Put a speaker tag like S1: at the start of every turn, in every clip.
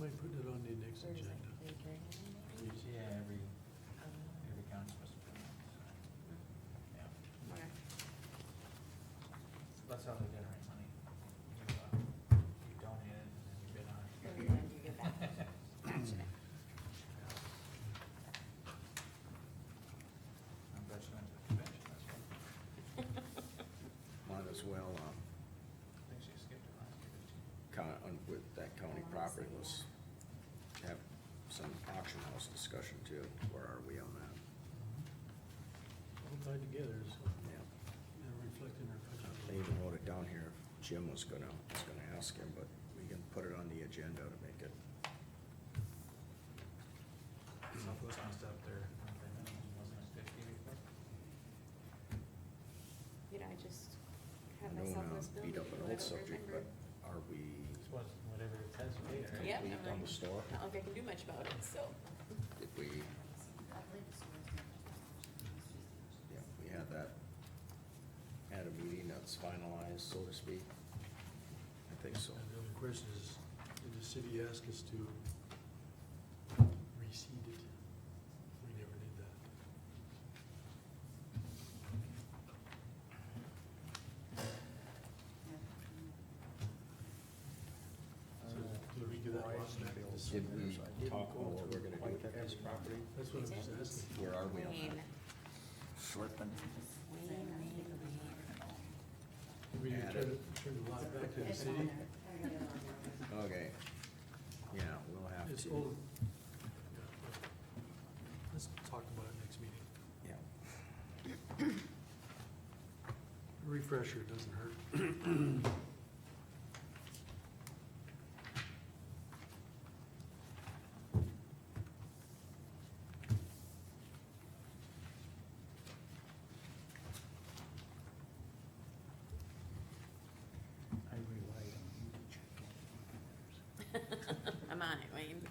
S1: might put it on the next
S2: Where is it?
S1: agenda.
S2: Are you carrying it?
S3: Yeah, every,
S2: Um,
S3: every council must put it, so, yeah.
S2: okay.
S3: That's how they generate money. You, uh, you donate it and then you bid on
S2: Oh,
S3: it.
S2: yeah, you get that. Gotcha.
S3: I'm glad you went to the convention, that's why.
S2: Um,
S4: Might as well, um,
S3: I think she skipped it last year, didn't she?
S4: kind of, with that county
S2: Oh, I
S4: property,
S2: see.
S4: let's have some auction house discussion too. Where are we on that? Mm-hmm.
S1: All tied together, so
S4: Yeah,
S1: they're reflecting our
S4: they
S1: budget.
S4: even wrote it down here. Jim was gonna, was gonna ask him, but we can put it on the agenda to make it.
S3: Southwest must up there, monthly minimum, wasn't it fifty before?
S2: You know, I just
S4: I
S2: had
S4: don't
S2: myself
S4: wanna
S2: this building.
S4: beat up an
S2: I
S4: old
S2: don't
S4: subject,
S2: remember.
S4: but are we
S3: It's what, whatever it says later.
S2: Yeah. Yep,
S4: complete on
S2: I'm-
S4: the store?
S2: Not like I can do much about it, so.
S4: Did we, yeah, we had that at a meeting that's finalized, so to speak? I think so.
S1: And the other question is, did the city ask us to reseed it? We never did that. So did we give that lost back? to the city?
S4: Did
S3: uh,
S4: we talk about what we're gonna do with that piece of property?
S1: That's what I was asking.
S4: Where are we on
S2: Wayne,
S4: that? Slipping.
S2: Wayne, Wayne, Wayne.
S1: Did we
S4: Add
S1: turn,
S4: it.
S1: it- turn the lot back to the city?
S4: Okay. Yeah, we'll have to.
S1: It's old. Let's talk about it next meeting.
S4: Yeah.
S1: Refresher doesn't hurt.
S3: I relied on you to check.
S2: I'm on it, Wayne.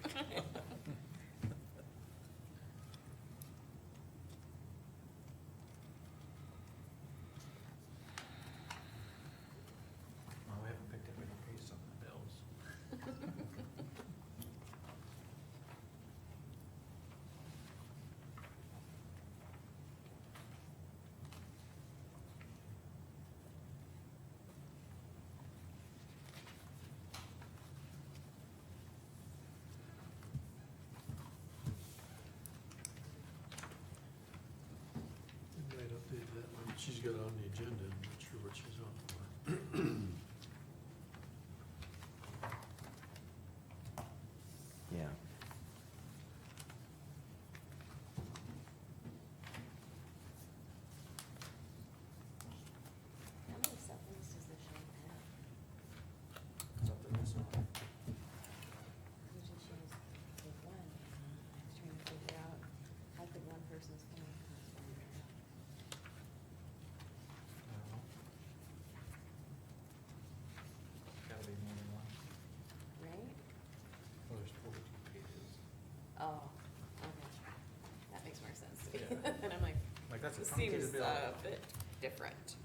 S3: Well, we haven't picked up any case on the bills.
S1: We might update that one. She's got it on the agenda. I'm not sure what she's on for.
S4: Yeah.
S2: How many supplements does this shop have?
S3: It's up to this one.
S2: Usually she has like one, and I was trying to figure out, how could one person's phone cost one
S3: No. Gotta be more than one.
S2: right?
S3: Well, there's forty-two pages.
S2: Oh, okay, that makes more sense to me,
S3: Yeah.
S2: and I'm like,
S3: Like, that's a
S2: this
S3: truncated
S2: seems uh,
S3: bill.
S2: a bit different.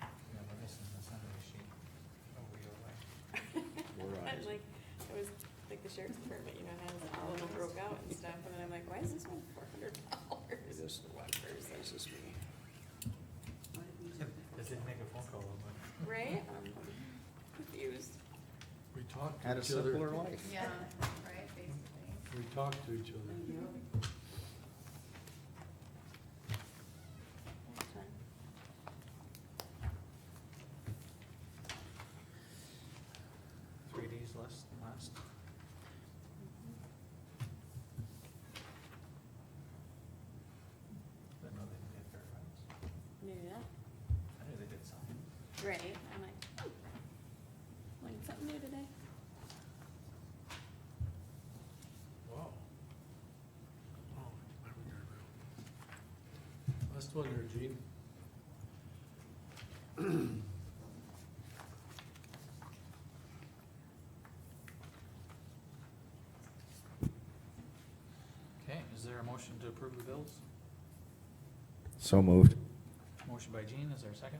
S3: Yeah, but this is the Sunday sheet. Oh, we are like,
S4: We're on
S2: I'm
S4: it.
S2: like, I was, like the sheriff's department, you know, has all of them broke out and stuff, and then I'm like, why is this one four hundred
S4: Is
S2: dollars
S4: this
S2: for one person?
S4: Is this me?
S3: I did make a phone call, I'm like,
S2: Right? I'm confused.
S1: We talked to
S4: Had a
S1: each other.
S4: simpler life.
S5: Yeah, right, basically.
S1: We talked to each other.
S2: That's fine.
S3: three days less than last.
S2: Mm-hmm.
S3: But no, they didn't get fair rounds.
S2: Maybe not.
S3: I knew they did something.
S2: Right, I'm like, oh, learned something new today.
S1: Wow. Oh, I remember. Last one there, Gene.
S3: Okay, is there a motion to approve the bills?
S4: So moved.
S3: Motion by Gene, is there a second?